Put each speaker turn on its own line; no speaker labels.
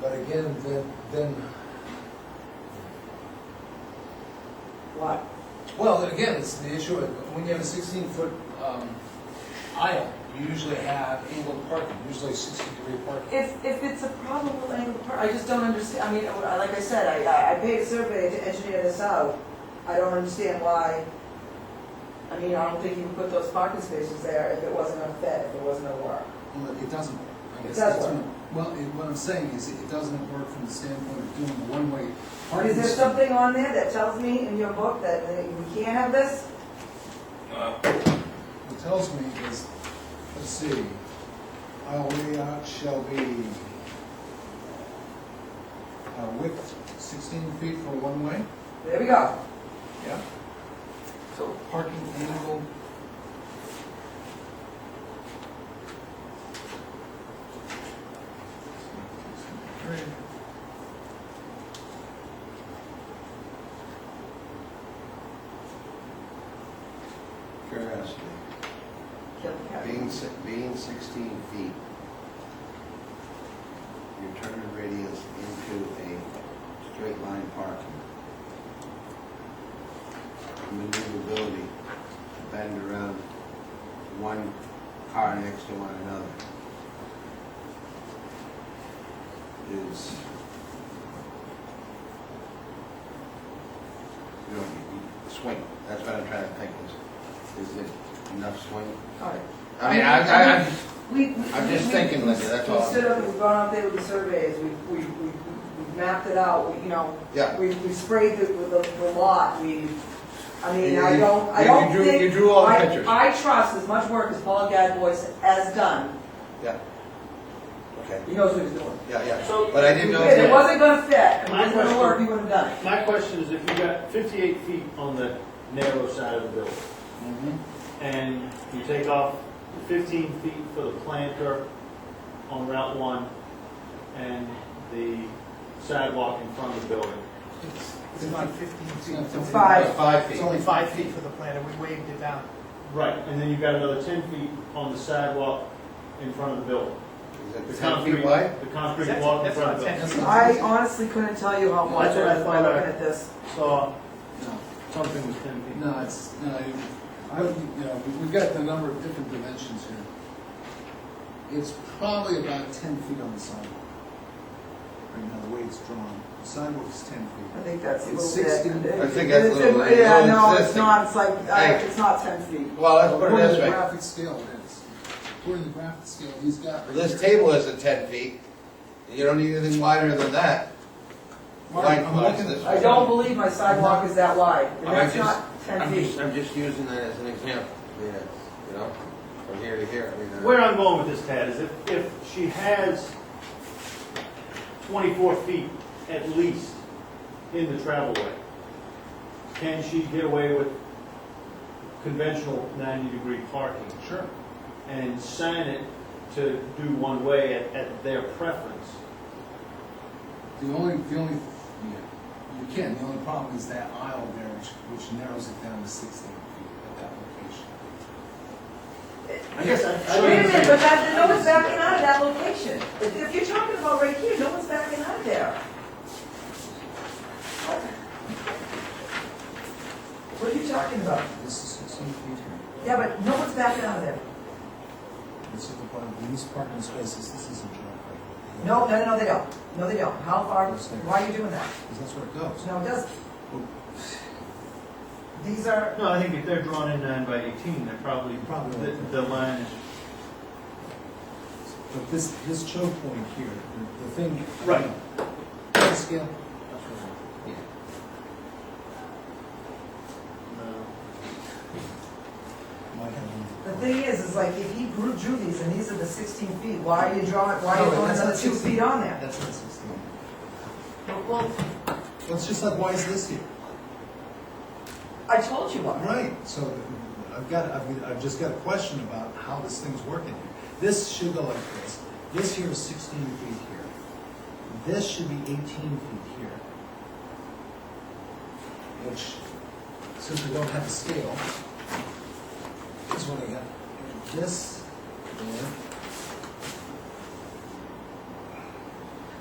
But again, then, then,
What?
well, then again, it's the issue of, when you have a sixteen-foot
um,
aisle, you usually have angled parking, usually sixty-degree parking.
If, if it's a problem with angle park, I just don't understand, I mean, I- like I said, I- I, I paid a survey to engineer this out. I don't understand why, I mean, I don't think you would put those parking spaces there if it wasn't a fit, if it wasn't a work.
Well, it doesn't. I guess
It does
that's
work.
what- Well, it- what I'm saying is it doesn't work from the standpoint of doing a one-way
Is
parking.
there
spot.
something on there that tells me in your book that uh, we can't have this?
What it tells me is, let's see, aisle layout shall be uh, width 16 feet for one-way.
There we go.
Yeah. So parking angle. Mm-hmm.
Curiosity,
Kill the cat.
being, si- being sixteen feet, you turn the radius into a straight line parking. Maneuverability to bend around one car next to one another is. You don't need swing, that's what I'm trying to think is, is it enough swing?
All right.
I mean, I, I, I,
We, we-
I'm just
we-
thinking,
we-
Linda, that's
We
all.
stood up, we've gone out there with the surveys, we've, we've, we've we've mapped it out, we, you know,
yeah.
we, we sprayed the, the, the lot, we, I mean, I
You-
don't, I
you-
don't
you drew-
think.
you drew all the
I-
pictures.
I trust as much work as Paul Gadbois has done,
Okay,
he knows what he's doing.
yeah, yeah,
So-
but I didn't know.
If it wasn't gonna fit, if it
My
wasn't gonna
question-
work, he wouldn't have done it.
My question is, if you got 58 feet on the narrow side of the building,
Mhm.
and you take off 15 feet for the planter on Route 1 and the sidewalk in front of the building,
It's, it's not
It's
fifteen
not
feet.
something-
Five.
Five feet.
It's only five feet for the planter, we waved it down.
right, and then you've got another 10 feet on the sidewalk in front of the building.
Is
The
it ten
concrete
feet wide?
The concrete
That's-
walk in
that's
front
not
of the
ten
building.
building.
I
feet.
honestly couldn't tell you how much
That's what I
was by
thought,
looking
right.
at this.
So,
No,
something was 10 feet.
no, it's, no, it- I, would- you know, we- we've got the number of different dimensions here. It's probably about ten feet on the sidewalk. Right now, the way it's drawn, the sidewalk's ten
I
feet.
think that's a
It's
little bit.
16.
it-
I think
it-
that's a
it's-
little- it's
Yeah,
all
no, it's
existing.
not, it's like, I-
Hey.
it's not ten feet.
Well, let's put it
According to
this
the
way,
graphic scale, it is. According to the graphic scale, he's got. right
this
here.
table isn't ten feet, you don't need anything wider than that.
Mark,
Like,
I'm looking at
this.
this.
I don't believe my sidewalk is that wide, and
I'm
that's
just-
not ten
I'm
feet.
just, I'm just using that as an example, yeah, you know, from here to here, I mean. uh,
Where I'm going with this, Tad, is if, if she has twenty-four feet at least in the travel way, can she get away with conventional ninety-degree parking? Sure. And sign it to do one way at, at their preference?
The only, the only, you can, the only problem is that aisle there, which, which narrows it down to sixteen feet at that location.
I guess I.
Wait a minute, but that, no one's backing out of that location. If if you're talking about right here, no one's backing out of there. What are you talking about?
This is sixteen feet here.
Yeah, but no one's backing out of there.
This is the part of these parking spaces, this isn't right.
No, no, no, they don't. No, they don't. How far, why are you doing that?
Because that's where it goes.
No, it doesn't. These are,
No, I think if they're drawn in nine by eighteen, they're probably,
Probably.
the, the line is.
But this, this choke point here, the- the thing.
Right.
Graphic Scale.
uh,
Might have
the thing is, is like, if he grew, drew these, and these are the sixteen feet, why are you drawing, why are
No,
you throwing
that's
another
not
two
16.
feet on
been-
there?
That's not sixteen.
Well,
Well, it's just like, why is this here?
I told you why.
Right, so I've got, I've, I've just got a question about how this thing's working here. This should go like this, this here is sixteen feet here, this should be eighteen feet here. Which, since we don't have a scale, this one I got, this, there,